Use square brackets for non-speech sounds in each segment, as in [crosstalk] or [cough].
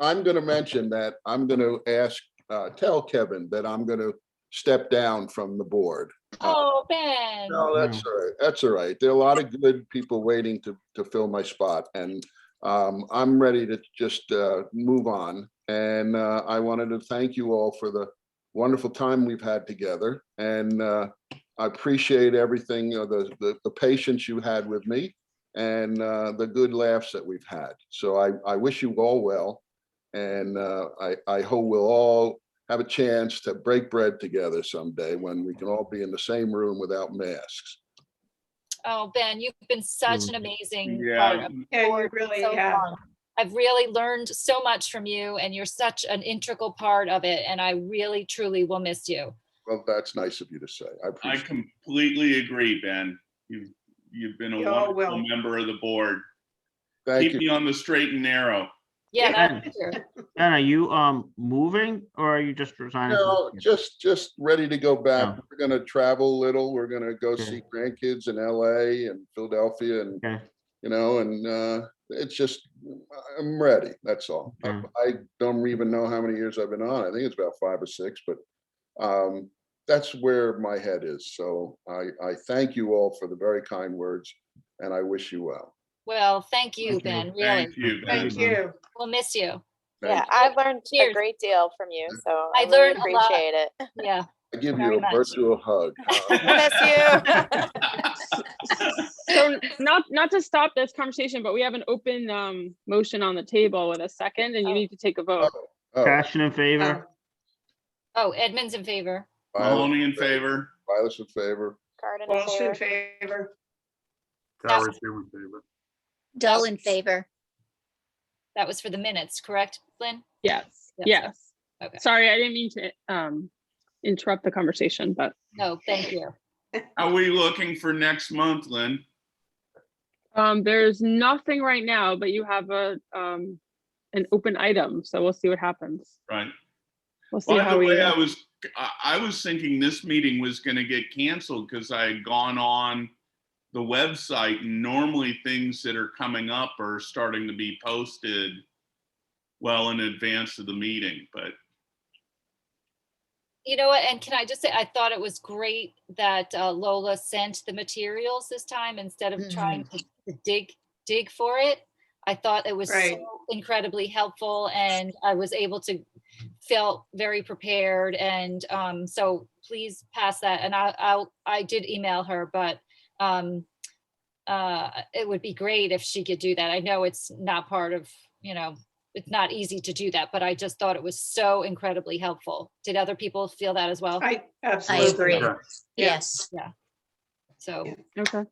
I'm gonna mention that, I'm gonna ask, uh, tell Kevin that I'm gonna step down from the board. Oh, Ben. No, that's all right, that's all right. There are a lot of good people waiting to, to fill my spot and um, I'm ready to just uh, move on. And uh, I wanted to thank you all for the wonderful time we've had together and uh, I appreciate everything, uh, the, the, the patience you had with me and uh, the good laughs that we've had. So I, I wish you all well. And uh, I, I hope we'll all have a chance to break bread together someday when we can all be in the same room without masks. Oh, Ben, you've been such an amazing. part Yeah. of the Yeah, you board for really so have. long. I've really learned so much from you and you're such an integral part of it and I really truly will miss you. Well, that's nice of you to say. I I appreciate, completely agree, Ben. You've, you've been a You all wonderful will. member of the board. thank Keep you. me on the straight and narrow. Yeah, Yeah. that's true. Ben, are you um moving or are you just resigning? from No, the- just, just ready to go back. Yeah. We're gonna travel a little. We're gonna go Okay. see grandkids in LA and Philadelphia and, Okay. you know, and uh, it's just, I'm ready, that's all. I Okay. I don't even know how many years I've been on. I think it's about five or six, but um, that's where my head is. So I, I thank you all for the very kind words and I wish you well. Well, thank you, Thank you. Ben, really. Thank you, Ben. Thank you. We'll miss you. Yeah, Thank you. I've learned Cheers. a great deal from you, so I I really learned a lot. appreciate it. [laughs] Yeah. I give very you a much. virtual [laughs] hug. Uh, Miss you. So not, not to stop this conversation, but we have an open um motion on the table with a second and Oh. you need to take a vote. Oh, Passion in Um, favor? Oh, Edmund's in favor. Violet- Maloney in favor. Violet's in favor. [laughs] Garden Walsh in affair. favor. That's- Dull in favor. That was for the minutes, correct, Lynn? Yes, Yes. yes. Okay. Sorry, I didn't mean to um interrupt the conversation, but No, thank you. Are we looking for next month, Lynn? um there's nothing right now, but you have a um an open item, so we'll see what happens. Right. We'll see By how the we. way, uh, I was, I, I was thinking this meeting was gonna get canceled because I had gone on the website. and Normally, things that are coming up are starting to be posted well in advance of the meeting, but You know what, and can I just say, I thought it was great that uh, Lola sent the materials this time instead of trying to to dig, dig for it. I thought it was Right. so incredibly helpful and I was able to, felt very prepared and um, so please pass that and I, I'll, I did email her, but um, uh, it would be great if she could do that. I know it's not part of, you know, it's not easy to do that, but I just thought it was so incredibly helpful. Did other people feel that as well? I I absolutely. agree. Yeah. Yes. So, Okay.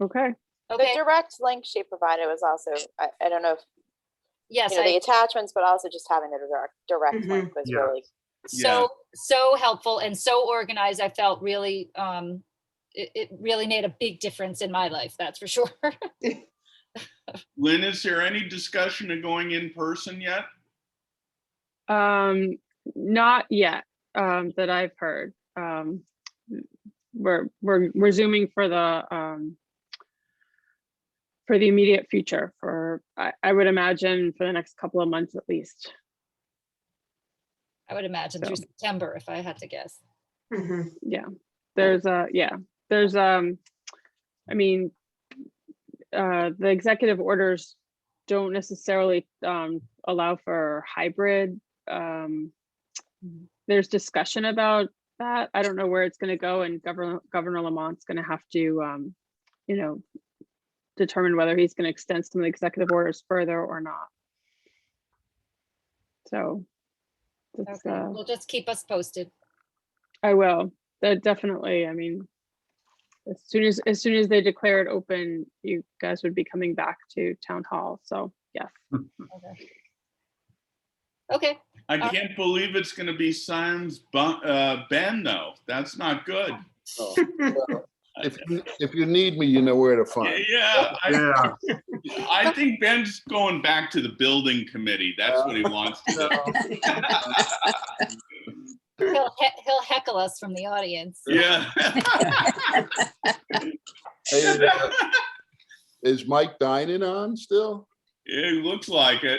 Okay, The okay, direct link she provided was also, I, I don't know if, yes, you know, the I, Mm-hmm. attachments, but also just having the direct, direct Mhm. link was Yeah. really so, so helpful and so organized. I felt really, um, it, it really made a big difference in my life, that's for [laughs] sure. Lynn, is there any discussion of going in person yet? um not yet, um that I've heard. Um we're we're we're zooming for the um for the immediate future for I, I would imagine for the next couple of months at least. I would imagine through So. September, if I had to guess. Mhm. There's a, yeah, there's um, I mean, uh, the executive orders don't necessarily um allow for hybrid. Um, there's discussion about that. I don't know where it's gonna go and Governor, Governor Lamont's gonna have to um, you know, determine whether he's gonna extend some of the executive orders further or not. So. that's, Okay, uh, well, just keep us posted. I will. That definitely, I mean, as soon as, as soon as they declare it open, you guys would be coming back to town hall. So, yes. Okay. Okay, I Uh, can't believe it's going to be Sam's bu- uh, Ben though. That's not good. Oh, well, If, you- if you need me, you know where to Yeah, find. Uh, yeah, I, Yeah. I think Ben's going back to the building committee. That's what he wants to [laughs] do. he'll, he- he'll heckle us from the audience. Yeah. [laughs] Hey, uh, Is Mike dining on still? It looks like it.